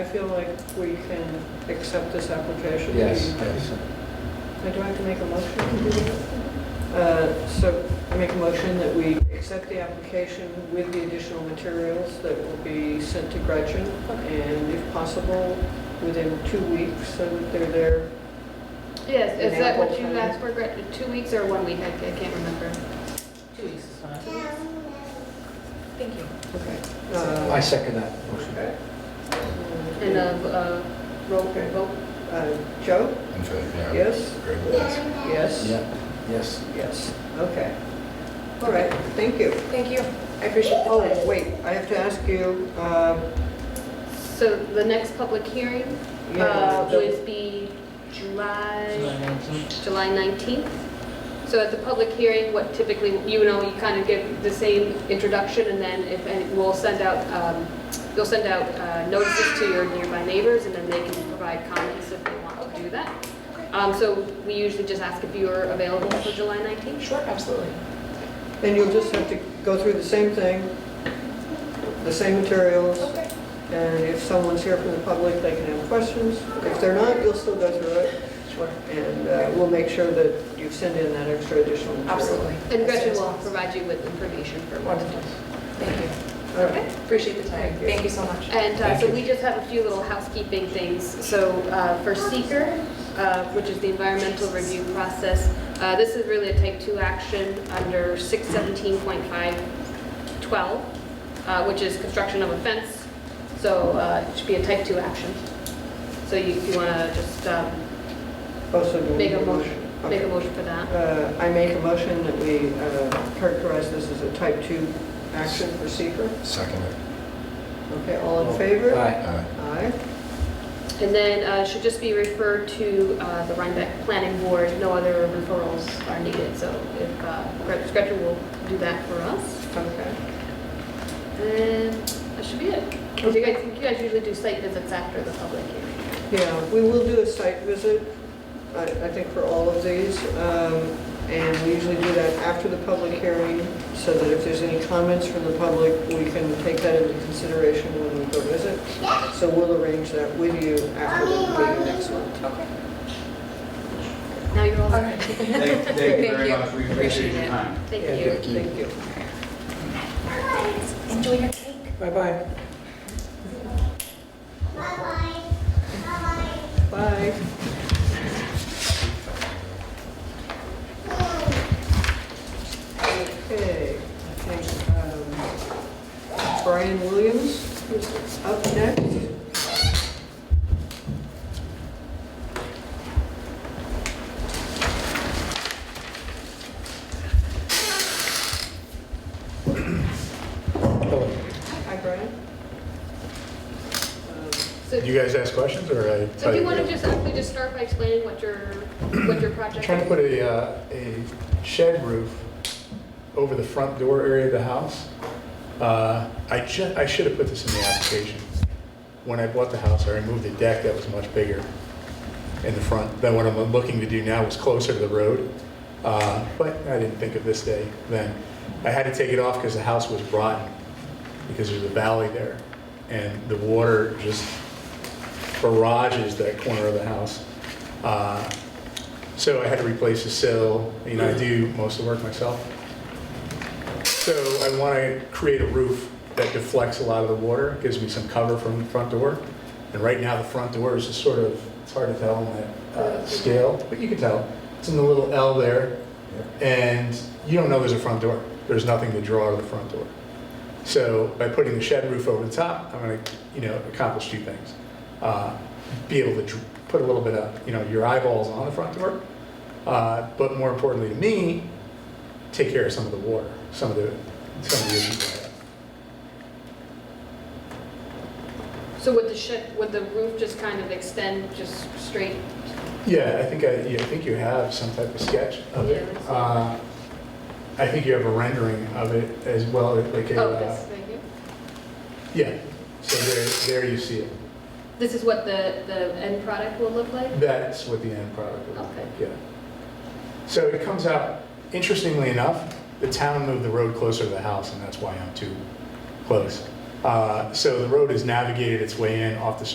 feel like we can accept this application. Yes, yes. Now, Do I have to make a motion to do that? Uh, So I make a motion that we accept the application with the additional materials that will be sent to Gretchen, and if possible, within two weeks, so that they're there. Yes, is that what you Example. asked for, Gretchen? Two weeks or one week? I I can't remember. Two weeks is fine. Thank you. Okay. uh, I second that motion. And a, uh roll Okay. vote? Uh, Joe? In fact, yeah. Yes? Great, yes. Yes? Yeah, yes. Yes, okay. All right, thank you. Thank you. I appreciate, oh, wait, I have to ask you, um, So the next public hearing Yeah. uh, would be July, July 19th. So at the public hearing, what typically, you know, you kind of give the same introduction, and then if, and we'll send out, um, you'll send out uh, notices to your nearby neighbors, and then they can provide comments if they want to do that. Um, So we usually just ask if you are available for July 19th. Sure, absolutely. And you'll just have to go through the same thing, the same materials. And if someone's here from the public, they can have questions. If they're not, you'll still go through it. Sure. And uh, we'll make sure that you send in that extra additional material. Absolutely. And Gretchen will provide you with information for what to Wonderful. do. Thank you. All right. Appreciate the time. Thank you. Thank you so much. And uh, so we just have a few little housekeeping things. So uh, for seeker, uh, which is the environmental review process, uh, this is really a type 2 action under 617.512, uh, which is construction of a fence. So uh, it should be a type 2 action. So you want to just um, Also, Oh, do we make need a a motion, make a Okay. motion for that. Uh, I make a motion that we uh, characterize this as a type 2 action for seeker. Second uh, it. Okay, all in favor? Aye. Aye. Aye. And then uh, it should just be referred to uh, the Rhinebeck Planning Board. No other referrals are needed, so if uh, Gret- Gretchen will do that for us. Okay. And that Uh, should be it. You guys, you guys usually do site visits after the public hearing. Yeah, we will do a site visit, I I think for all of these, um, and we usually do that after the public hearing, so that if there's any comments from the public, we can take that into consideration when we go visit. So we'll arrange that with you after the meeting next month. Now you're all All set. right. Thank thank you very Thank you. much, we appreciate Appreciate your it. time. Thank you. Thank you. Enjoy your cake. Bye-bye. Bye. Okay, I think um, Brian Williams is up next. Hello. Hi, Brian. Um, So You guys ask questions, or I? so do you want to just actually just start by explaining what your, what your project is? Trying to put a, uh, a shed roof over the front door area of the house. Uh, I ju, I should have put this in the application. When I bought the house, I removed the deck that was much bigger in the front than what I'm looking to do now, was closer to the road. Uh, But I didn't think of this day then. I had to take it off because the house was rotten, because there's a valley there. And the water just barrages that corner of the house. Uh, so I had to replace the sill, you know, I do most of the work myself. So I want to create a roof that deflects a lot of the water, gives me some cover from the front door. And right now, the front door is just sort of, it's hard to tell on that uh, scale, but you can tell. It's in the little L there, and you don't know there's a front door. There's nothing to draw to the front door. So by putting the shed roof over the top, I'm going to, you know, accomplish two things. Uh, Be able to dr- put a little bit of, you know, your eyeballs on the front door, uh, but more importantly to me, take care of some of the water, some of the, some of the issues. I have. So would the shed, would the roof just kind of extend just straight? Yeah, I think, I, yeah, I think you have some type of sketch of it. Yeah, that's- Uh, I think you have a rendering of it as well, like a, Oh, this, uh, right here? yeah, so there, there you see it. This is what the, the end product will look like? That's what the end product will look Okay. like, yeah. So it comes out, interestingly enough, the town moved the road closer to the house, and that's why I'm too close. Uh, So the road has navigated its way in off the